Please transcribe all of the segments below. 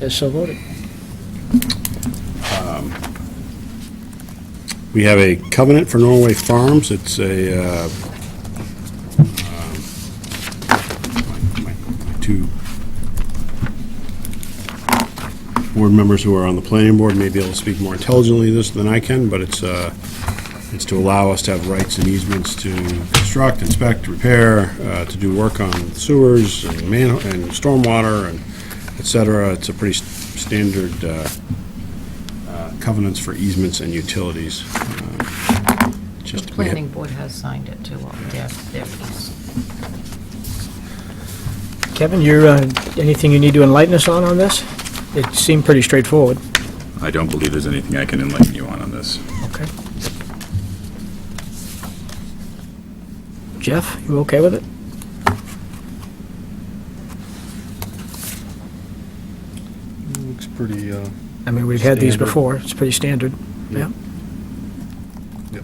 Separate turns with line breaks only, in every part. As so voted.
We have a covenant for Norway Farms. It's a, uh, um, my- my- my two board members who are on the planning board may be able to speak more intelligently this than I can, but it's, uh, it's to allow us to have rights and easements to construct, inspect, repair, uh, to do work on sewers and man, and stormwater and et cetera. It's a pretty s- standard uh, uh, covenants for easements and utilities. um,
The
Just we have-
planning board has signed it too, on their, their piece.
Kevin, you're, uh, anything you need to enlighten us on on this? It seemed pretty straightforward.
I don't believe there's anything I can enlighten you on on this.
Okay. Jeff, you okay with it?
Looks pretty, uh,
I mean, we've had these
Standard.
before, it's pretty standard. Yeah.
Yeah.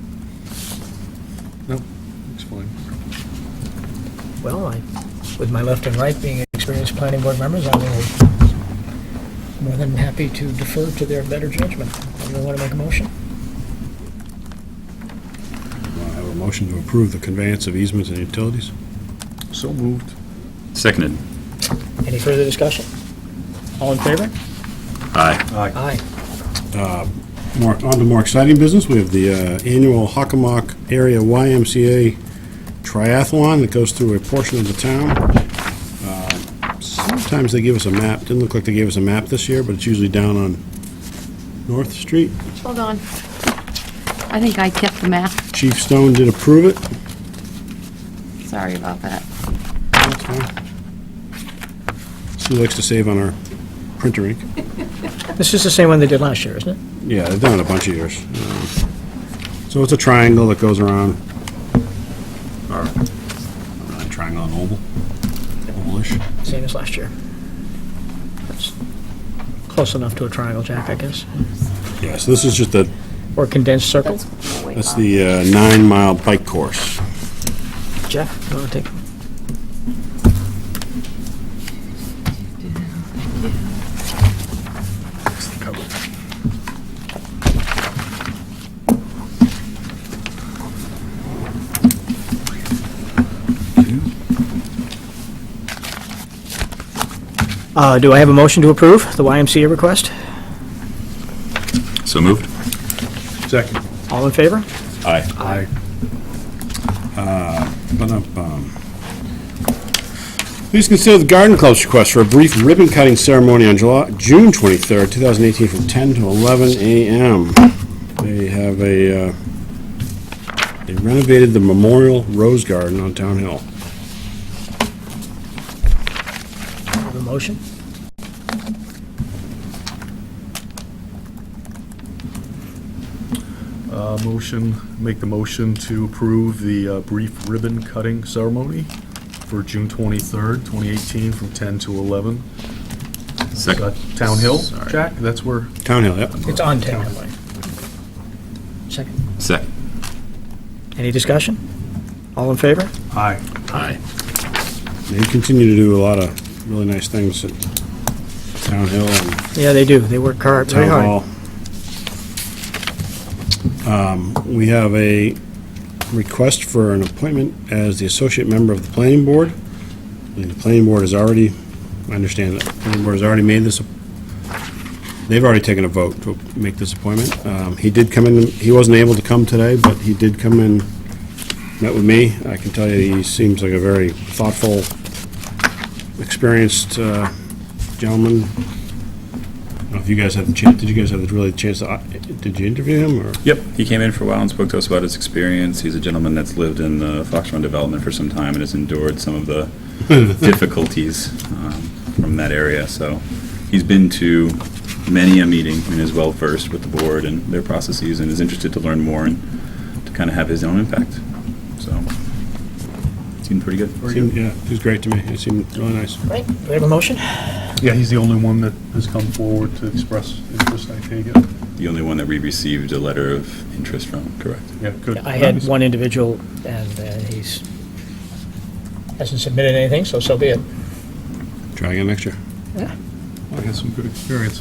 no, looks fine.
Well, I, with my left and right being experienced planning board members, I'm more than happy to defer to their better judgment. Anyone want to make a motion?
I have a motion to approve the conveyance of easements and utilities.
So moved.
Seconded.
Any further discussion? All in favor?
Aye.
Aye.
More, on to more exciting business, we have the uh, annual Hockomock Area YMCA Triathlon that goes through a portion of the town. Uh, Sometimes they give us a map, didn't look like they gave us a map this year, but it's usually down on North Street.
Hold on. I think I kept the map.
Chief Stone did approve it.
Sorry about that.
That's fine. She likes to save on our printer ink.
This is the same one they did last year, isn't it?
Yeah, they've done it a bunch of years. Um, So it's a triangle that goes around, or, not a triangle, an oval, ovalish.
Same as last year. That's Close enough to a triangle jack, I guess,
Yeah, so this is just the,
or condensed circle.
that's the uh, nine-mile bike course.
Jeff, you want to take? Uh, Do I have a motion to approve the YMCA request?
So moved?
Second.
All in favor?
Aye.
Aye. Ba-dum-bum. Please consider the Garden Club's request for a brief ribbon-cutting ceremony on July, June 23rd, 2018, from 10 to 11 a.m. They have a, uh, they renovated the Memorial Rose Garden on Town Hill.
Have a motion?
Uh, motion, make the motion to approve the uh, brief ribbon cutting ceremony for June twenty-third, twenty eighteen, from ten to eleven. Uh,
Second.
Town Hill,
Sorry.
Jack, that's where,
Town Hill, yep.
It's on town. Second.
Second.
Any discussion? All in favor?
aye.
Aye.
They continue to do a lot of really nice things at Town Hill and
Yeah, they do. They work hard, very
Town
hard.
Hall. Um, We have a request for an appointment as the associate member of the planning board. I mean, The planning board has already, I understand that the planning board has already made this, they've already taken a vote to make this appointment. Um, He did come in, he wasn't able to come today, but he did come in, met with me. I can tell you, he seems like a very thoughtful, experienced uh, gentleman, don't know if you guys had the chance, did you guys have the- really the chance, to, uh, did you interview him, or?
Yep, he came in for a while and spoke to us about his experience. He's a gentleman that's lived in the Fox Run development for some time and has endured some of the difficulties um, from that area, so he's been to many a meeting and is well-versed with the board and their processes and is interested to learn more and to kind of have his own impact, so seemed pretty good.
Seemed- Yeah, he was great to me, he seemed really nice.
Right, do we have a motion?
Yeah, he's the only one that has come forward to express interest, I take it.
The only one that we received a letter of interest from, correct?
Yeah, good.
I had one individual, and uh, he's, hasn't submitted anything, so so be it.
Try again next year.
I had some good experience.